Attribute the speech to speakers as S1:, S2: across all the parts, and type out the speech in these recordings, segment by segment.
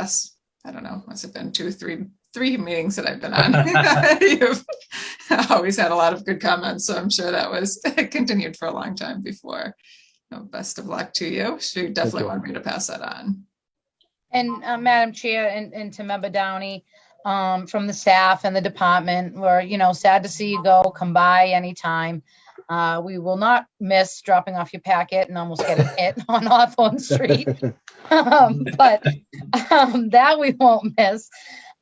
S1: us, I don't know, must have been two, three, three meetings that I've been on. You've always had a lot of good comments, so I'm sure that was continued for a long time before. So Best of luck to you. She definitely
S2: you.
S1: wanted me to pass that on.
S3: And uh, Madam Chair and, and to Member Downey, um, from the staff and the department, we're, you know, sad to see you go. Come by anytime. Uh, we will not miss dropping off your packet and almost getting hit on Hawthorne Street. Um, but um, that we won't miss.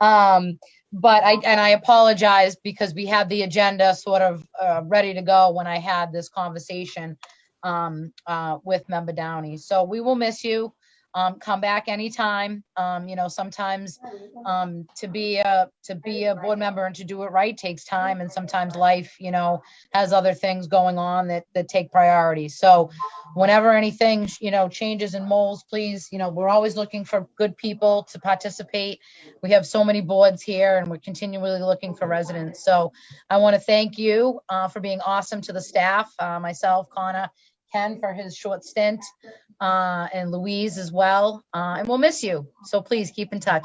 S3: Um, but I, and I apologize because we had the agenda sort of, uh, ready to go when I had this conversation, um, uh, with Member Downey. So we will miss you. Um, come back anytime. Um, you know, sometimes, um, to be a, to be a board member and to do it right takes time and sometimes life, you know, has other things going on that, that take priority. So whenever anything, you know, changes and molds, please, you know, we're always looking for good people to participate. We have so many boards here and we're continually looking for residents. So I want to thank you, uh, for being awesome to the staff, uh, myself, Connor, Ken for his short stint, uh, and Louise as well. Uh, and we'll miss you. So please keep in touch.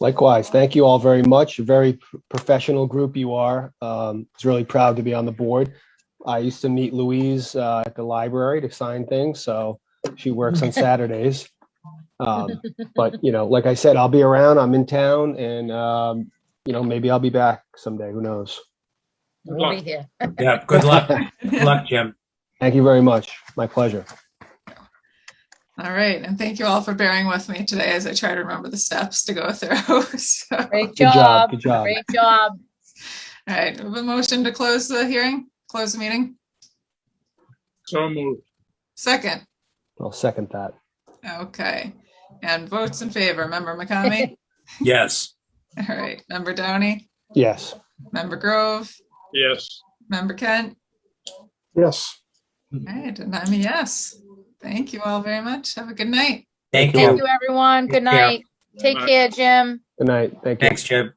S2: Likewise, thank you all very much. Very p- professional group you are. Um, was really proud to be on the board. I used to meet Louise uh, at the library to sign things, so she works on Saturdays. Um, but you know, like I said, I'll be around. I'm in town, and um, you know, maybe I'll be back someday. Who knows?
S4: Good
S3: We'll be
S4: luck.
S3: here.
S4: Yeah, good luck. Good luck, Jim.
S2: Thank you very much. My pleasure.
S1: All right, and thank you all for bearing with me today as I try to remember the steps to go through. So, all
S3: Great
S2: Good job.
S3: job.
S2: Good job.
S3: Great job.
S1: right, we have a motion to close the hearing, close the meeting.
S4: So moved.
S1: Second,
S2: I'll second that.
S1: okay. And votes in favor, member McCamey?
S4: Yes.
S1: All right, member Downey,
S2: Yes.
S1: member Grove,
S4: Yes.
S1: member Kent.
S2: Yes.
S1: All right, and I'm a yes. Thank you all very much. Have a good night.
S4: Thank
S2: Thank
S3: Thank
S4: you.
S3: you, everyone. Good
S4: Take care.
S3: night. Take care, Jim.
S2: Good night. Thank you.
S4: Thanks, Jim.